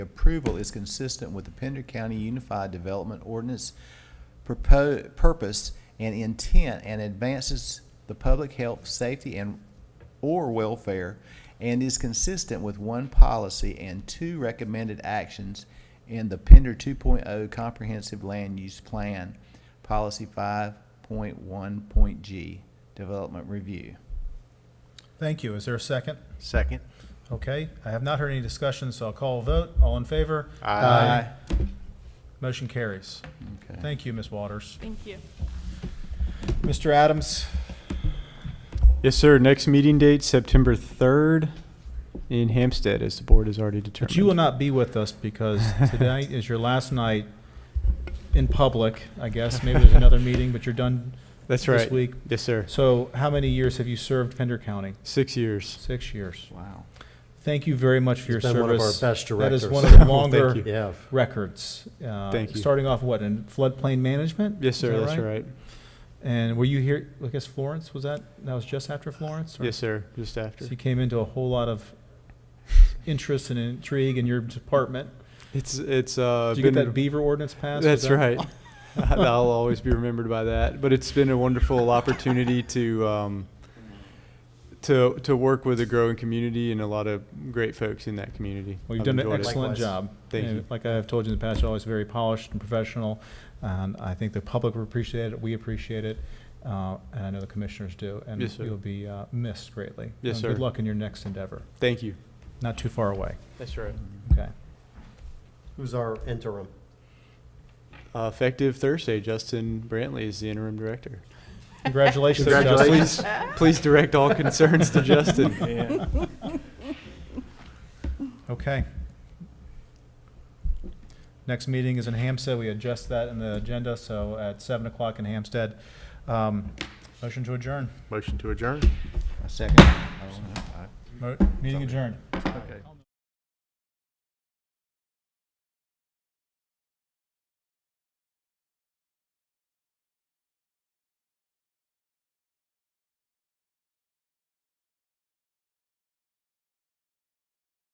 approval is consistent with the Pender County Unified Development Ordinance purpo- purpose and intent and advances the public health, safety, and or welfare, and is consistent with one policy and two recommended actions in the Pender 2.0 Comprehensive Land Use Plan, Policy 5.1.g Development Review. Thank you. Is there a second? Second. Okay, I have not heard any discussion, so I'll call a vote. All in favor? Aye. Motion carries. Okay. Thank you, Ms. Waters. Thank you. Mr. Adams, Yes, sir. Next meeting date, September 3rd in Hampstead, as the board has already but determined. you will not be with us because tonight is your last night in public, I guess. Maybe there's another meeting, but you're done. That's this right. week. Yes, sir. So how many years have you served Pender County? Six years. Six years. Wow. Thank you very much for your He's been one of our service. best That directors. is one of the Thank longer you. Yeah. records. Uh, Thank you. Starting off what, in floodplain management? Yes, Is sir. that That's right. And were you here, I guess Florence, was that, that was just after Florence? or- Yes, sir. Just after. So you came into a whole lot of interest and intrigue in your department. It's, it's, uh. Did you get been- that beaver ordinance passed? Was That's that- right. I'll always be remembered by that. But it's been a wonderful opportunity to um, to to work with a growing community and a lot of great folks in that community. Well, you've I've done an enjoyed it. excellent Likewise. job. Thank And you. Like I have told you in the past, you're always very polished and professional. And I think the public will appreciate it, we appreciate it, uh, and I know the commissioners do. And Yes, sir. you'll be uh, missed greatly. Yes, And sir. Good luck in your next endeavor, Thank you. not too far away, That's right. okay? Who's our interim? Uh, effective Thursday, Justin Brantley is the interim director. Congratulations, So, Justin. Please, please direct all concerns to Justin. Yeah. Okay. Next meeting is in Hampstead. We adjust that in the agenda, so at seven o'clock in Hampstead. Um, Motion to adjourn. Motion to adjourn. A second? I don't know. I- Mo- Meeting adjourned. Okay.